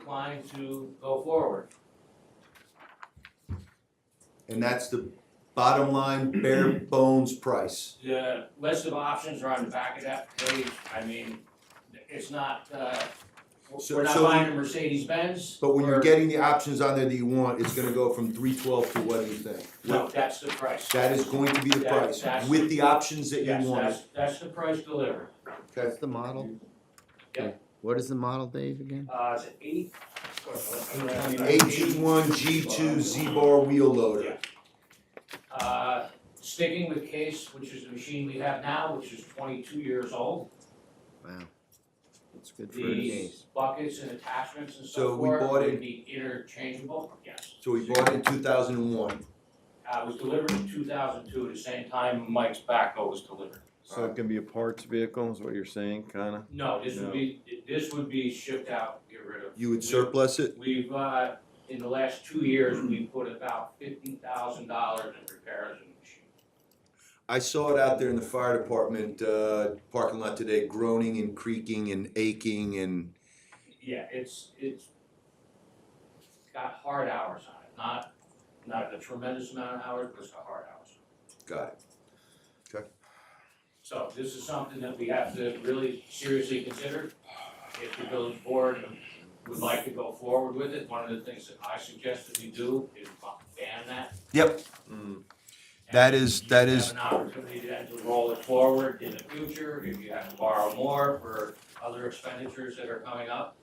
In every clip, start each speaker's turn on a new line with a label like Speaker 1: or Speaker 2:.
Speaker 1: trying to go forward.
Speaker 2: And that's the bottom line, bare bones price.
Speaker 1: The list of options are on the back of that page, I mean, it's not, uh,
Speaker 2: So-
Speaker 1: we're not
Speaker 2: so
Speaker 1: buying a Mercedes Benz.
Speaker 2: But when you're getting the options on there that you want, it's gonna go from three twelve to what do you think?
Speaker 1: No, that's the price.
Speaker 2: That is going to be the
Speaker 1: That-
Speaker 2: price,
Speaker 1: that's-
Speaker 2: with the options that you
Speaker 1: Yes,
Speaker 2: want.
Speaker 1: that's, that's the price delivered.
Speaker 2: Okay.
Speaker 3: What's the model?
Speaker 1: Yeah.
Speaker 3: Okay. What is the model, Dave, again?
Speaker 1: Uh, it's eight.
Speaker 2: A G one, G two, Z bar wheel loader.
Speaker 1: Uh, sticking with Case, which is the machine we have now, which is twenty-two years old.
Speaker 3: Wow. That's good for a
Speaker 1: These
Speaker 3: case.
Speaker 1: buckets and attachments and
Speaker 2: So
Speaker 1: so
Speaker 2: we
Speaker 1: forth
Speaker 2: bought it-
Speaker 1: would be interchangeable, yes.
Speaker 2: So we bought it in two thousand and one,
Speaker 1: Uh, it was delivered in two thousand two, at the same time Mike's backhoe was delivered.
Speaker 4: So it can be a parts vehicle, is what you're saying, kinda?
Speaker 1: No, this would be, this would be shipped out, get rid of.
Speaker 2: you would surplus it?
Speaker 1: We've, uh, in the last two years, we put about fifteen thousand dollars in repairs and machine.
Speaker 2: I saw it out there in the fire department, uh, parking lot today, groaning and creaking and aching and,
Speaker 1: Yeah, it's, it's got hard hours on it, not, not a tremendous amount of hours, but it's got hard hours.
Speaker 2: got it.
Speaker 1: So this is something that we have to really seriously consider. If the village board would like to go forward with it, one of the things that I suggest that we do is ban that.
Speaker 4: Mm.
Speaker 1: And
Speaker 2: That is- that
Speaker 1: you
Speaker 2: is-
Speaker 1: Have an opportunity then to roll it forward in the future, if you have to borrow more for other expenditures that are coming up.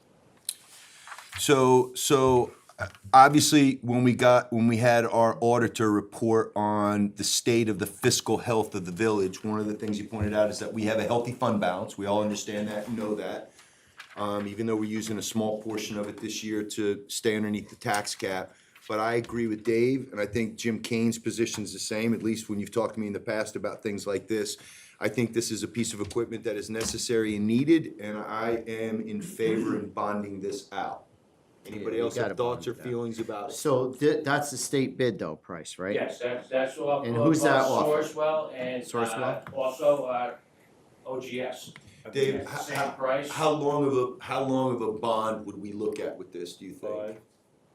Speaker 2: So, so uh, obviously, when we got, when we had our auditor report on the state of the fiscal health of the village, one of the things he pointed out is that we have a healthy fund balance. We all understand that, and know that. Um, even though we're using a small portion of it this year to stay underneath the tax cap. But I agree with Dave, and I think Jim Kane's position's the same, at least when you've talked to me in the past about things like this. I think this is a piece of equipment that is necessary and needed, and I am in favor in bonding this out. Anybody
Speaker 3: Yeah, you
Speaker 2: else have
Speaker 3: gotta
Speaker 2: thoughts or
Speaker 3: bond it out.
Speaker 2: feelings about it?
Speaker 3: So thi- that's the state bid though, price, right?
Speaker 1: Yes, that's, that's all.
Speaker 3: And who's that
Speaker 1: all
Speaker 3: off?
Speaker 1: Sourcewell and, uh,
Speaker 3: Sourcewell?
Speaker 1: also, uh, OGS.
Speaker 2: Dave,
Speaker 1: Yes,
Speaker 2: how-
Speaker 1: Same price.
Speaker 2: How long of a, how long of a bond would we look at with this, do you think?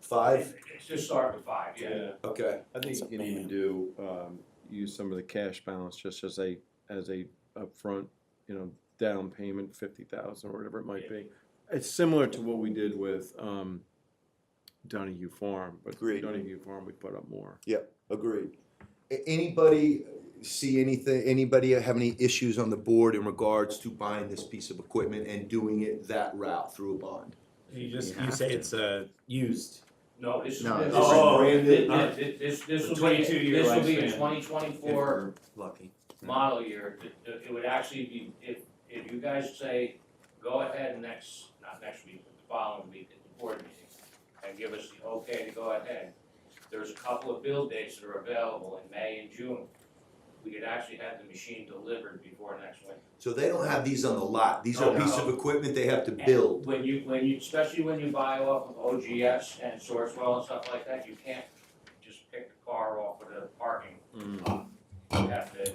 Speaker 2: Five?
Speaker 1: It's Just start with five, yeah.
Speaker 2: Okay,
Speaker 4: I think you can even do, um, use some of the cash balance just as a, as a upfront, you know, down payment, fifty thousand or whatever it might be. It's similar to what we did with, um, Donahue Farm, but
Speaker 2: Agreed.
Speaker 4: Donahue Farm, we put up more.
Speaker 2: agreed. A- Anybody see anything, anybody have any issues on the board in regards to buying this piece of equipment and doing it that route through a bond?
Speaker 5: You
Speaker 3: You
Speaker 5: just, you
Speaker 3: have
Speaker 5: say
Speaker 3: to.
Speaker 5: it's uh, used.
Speaker 1: No, this is.
Speaker 3: No, this is
Speaker 1: oh,
Speaker 2: brand
Speaker 1: thi-
Speaker 2: new.
Speaker 1: thi- thi- This, this will be,
Speaker 5: 22 year
Speaker 1: this will be a
Speaker 5: lifespan.
Speaker 1: twenty twenty-four
Speaker 5: Lucky.
Speaker 1: model year. Th- th- It would actually be, if, if you guys say, go ahead next, not next week, but the following week at the board meeting, and give us the okay to go ahead, there's a couple of bill dates that are available in May and June. We could actually have the machine delivered before next winter.
Speaker 2: So they don't have these on the lot, these are a piece of equipment they have to build.
Speaker 1: When you, when you, especially when you buy off of OGS and Sourcewell and stuff like that, you can't just pick the car off of the parking.
Speaker 4: Mm.
Speaker 1: You have to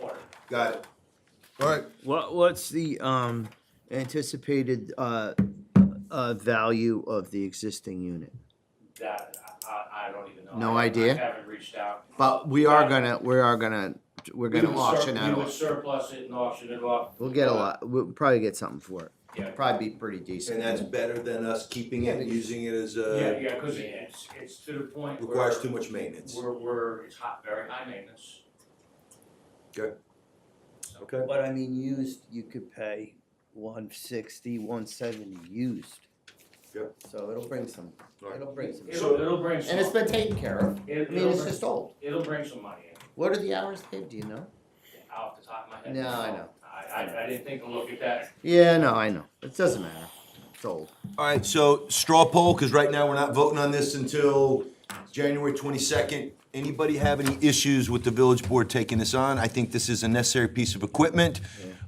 Speaker 1: order.
Speaker 2: Got it. All right,
Speaker 3: What, what's the, um, anticipated, uh, uh, value of the existing unit?
Speaker 1: That, I, I- I don't even know.
Speaker 3: No
Speaker 1: I-
Speaker 3: idea?
Speaker 1: I haven't reached out.
Speaker 3: But we are gonna, we are gonna, we're
Speaker 1: We
Speaker 3: gonna
Speaker 1: would sur-
Speaker 3: auction that
Speaker 1: We would
Speaker 3: off.
Speaker 1: surplus it and auction it off.
Speaker 3: We'll get a lot, we'll probably get something for it.
Speaker 1: Yeah.
Speaker 3: Probably be pretty decent.
Speaker 2: and that's better than us keeping it and using it as
Speaker 1: Yeah,
Speaker 2: a,
Speaker 1: yeah, cause it's, it's to the point where.
Speaker 2: requires too much maintenance.
Speaker 1: We're, we're, it's hot, very high maintenance.
Speaker 2: Good.
Speaker 1: So-
Speaker 2: Okay.
Speaker 3: But I mean, used, you could pay one sixty, one seventy used.
Speaker 2: Yep.
Speaker 3: So it'll bring some,
Speaker 2: Right.
Speaker 3: it'll bring some.
Speaker 1: It'll, it'll bring some.
Speaker 3: And it's been taken care of.
Speaker 1: it-
Speaker 3: I mean,
Speaker 1: It'll,
Speaker 3: it's
Speaker 1: bring-
Speaker 3: just old.
Speaker 1: it'll bring some money in,
Speaker 3: What are the hours, Dave? Do you know?
Speaker 1: off the top of my head.
Speaker 3: No, I know.
Speaker 1: I, I, I didn't think to look at that.
Speaker 3: Yeah, no, I know. It doesn't matter. It's old.
Speaker 2: All right, so straw poll, because right now we're not voting on this until January twenty-second. Anybody have any issues with the village board taking this on? I think this is a necessary piece of equipment.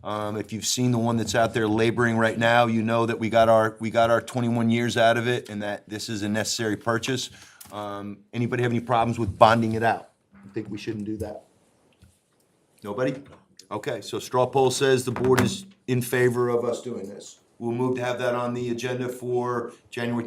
Speaker 2: Um, if you've seen the one that's out there laboring right now, you know that we got our, we got our twenty-one years out of it and that this is a necessary purchase. Um, anybody have any problems with bonding it out? I think we shouldn't do that. Nobody? Okay, so straw poll says the board is in favor of us doing this. We'll move to have that on the agenda for January